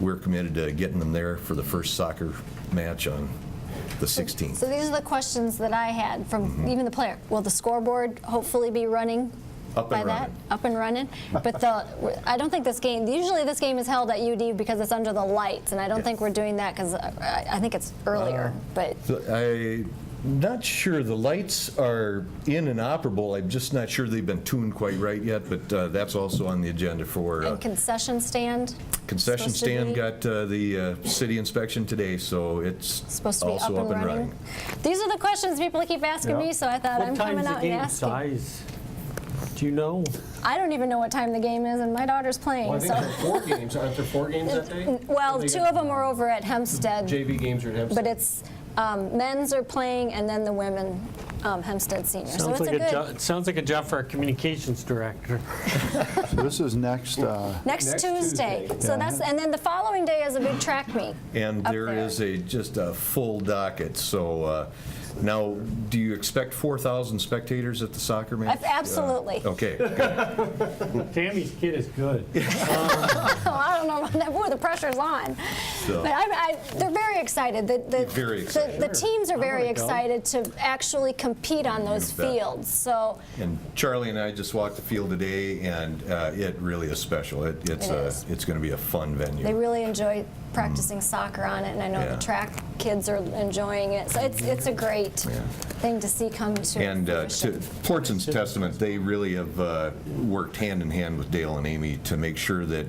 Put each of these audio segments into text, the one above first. we're committed to getting them there for the first soccer match on the 16th. So these are the questions that I had from Mm-hmm. even the player. Will the scoreboard hopefully be running? Up and by that, running. up and running. But the, I don't think this game. Usually, this game is held at UD because it's under the lights, and I don't Yeah. think we're doing that because I, I think it's Uh, earlier. but I'm not sure, the lights are in and operable, I'm just not sure they've been tuned quite right yet, but uh, that's also on the agenda for uh, and concession stand concession supposed to stand, be- got uh, the uh, city inspection today, so it's supposed to be also up and running. These are the questions people keep asking me, so I thought What I'm time's coming the out and game asking. size? Do you know? I don't even know what time the game is, and my daughter's playing. Well, I think so, there are four games, aren't there four games that day? well, They two got of them are over at Hempstead. JV games are at Hempstead. But it's, um, men's are playing and then the women, um, Hempstead Senior. So it's Sounds like a jo- good, it Sounds like a job for our communications director. This is next, uh, next Next Tuesday. Tuesday. So that's, and then the following day is a big track meet. And Up there there. is a, just a full docket, so uh, now, do you expect 4,000 spectators at the soccer match? Ab- absolutely. Uh, Okay, good. Tammy's kid is good. Oh, I don't know about that, boy, the pressure's on. So- But I, I, they're very excited. The- the- Very the- excited. The teams are very wanna go. excited to actually compete on those You bet. fields, so. and Charlie and I just walked the field today, and uh, it really is special. It- It's It a, is. it's going to be a fun venue. They really enjoy practicing soccer on it, and I know Yeah. the track kids are enjoying it. So it's it's a great thing to see come to And uh, to fruition. Portson's testament, they really have uh, worked hand in hand with Dale and Amy to make sure that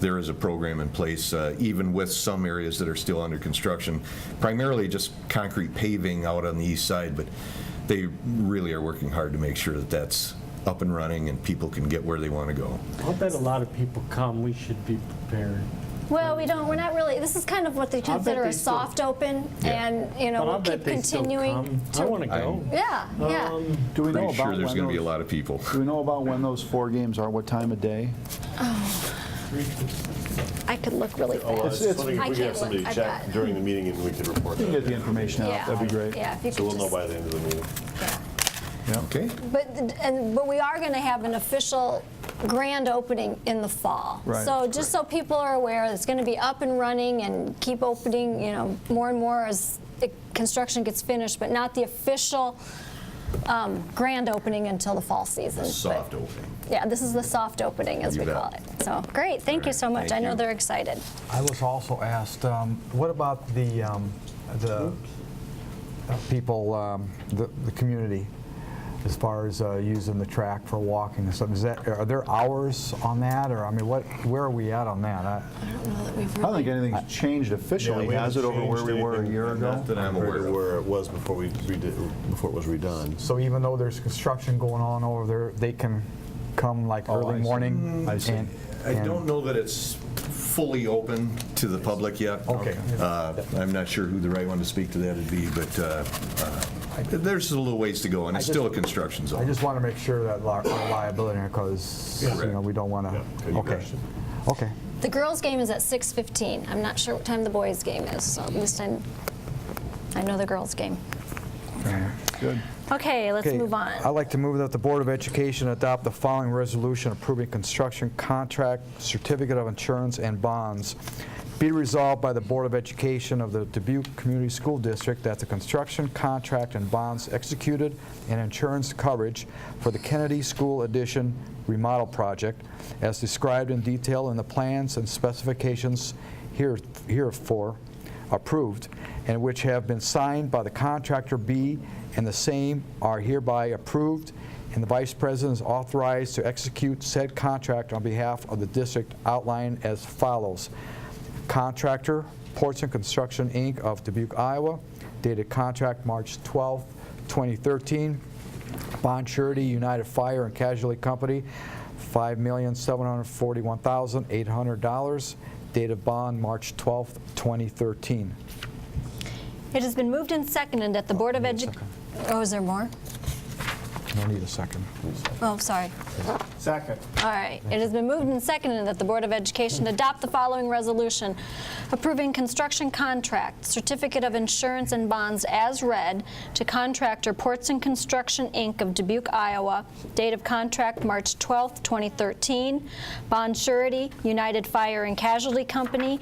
there is a program in place, uh, even with some areas that are still under construction, primarily just concrete paving out on the east side, but they really are working hard to make sure that that's up and running and people can get where they want to go. I'll bet a lot of people come. We should be prepared. Well, we don't. We're not really. This is kind of what they bet consider they a still- soft open, Yeah. and you know But I'll we'll bet keep they still continuing. come. I want to go. Yeah, yeah. Um, do we Pretty know about sure when there's going to be a those- lot of people. Do we know about when those four games are, what time of day? I could look really Well, fast. It's- it's it's- something I if can't we can have somebody look. I've check got- during the meeting and we can report Get the that. information out, yeah, that'd be great. Yeah, if you So we'll could know just- by the end of the meeting. Okay? But, th- and, but we are going to have an official grand opening in the fall. Right. So just so people are aware, it's going to be up and running and keep opening, you know, more and more as the construction gets finished, but not the official um, grand opening until the fall season. Soft opening. But, yeah, this is the soft opening, as You we bet. call it. So, great, thank you so much. Thank I know you. they're excited. I was also asked, um, what about the, um, the uh, people, um, the, the community, as far as uh, using the track for walking and stuff? Is that, are there hours on that, or, I mean, what, where are we at on that? I- I don't think anything's changed officially, has it, over where we were a year ago? Not that I'm aware Compared to of. Where it was before we redid, before it was redone. So even though there's construction going on over there, they can come like Oh, I early see. morning? I see. and- I and- don't know that it's fully open to the public yet. Okay. Uh, I'm not sure who the right one to speak to that would be, but uh, uh, there's a little ways to go, and it's just- still a construction I zone. just want to make sure that li- our liability, because, you know, Correct. we don't want to, good okay. question. Okay, The girls' game is at 6.15. I'm not sure what time the boys' game is, so at least i I know the girls' game. Good. Okay, let's Okay, Uh, move on. I'd like to move that the Board of Education adopt the following resolution approving construction contract, certificate of insurance, and bonds. Be resolved by the Board of Education of the Dubuque Community School District that the construction contract and bonds executed and insurance coverage for the Kennedy School addition remodel project, as described in detail in the plans and specifications here herefor, approved and which have been signed by the contractor B and the same are hereby approved and the vice president is authorized to execute said contract on behalf of the district outlined as follows. Contractor, Portson Construction, Inc. of Dubuque, Iowa, dated contract March 12, 2013. Bond surety, United Fire and Casualty Company, $5,741,800. Date of bond, March 12, 2013. It has been moved and seconded that the Board of Edu... Oh, is there more? No need a second. Oh, sorry. Second. All right. It has been moved and seconded that the Board of Education adopt the following resolution approving construction contract, certificate of insurance and bonds as read to contractor Ports and Construction, Inc. of Dubuque, Iowa, date of contract March 12, 2013, bond surety United Fire and Casualty Company,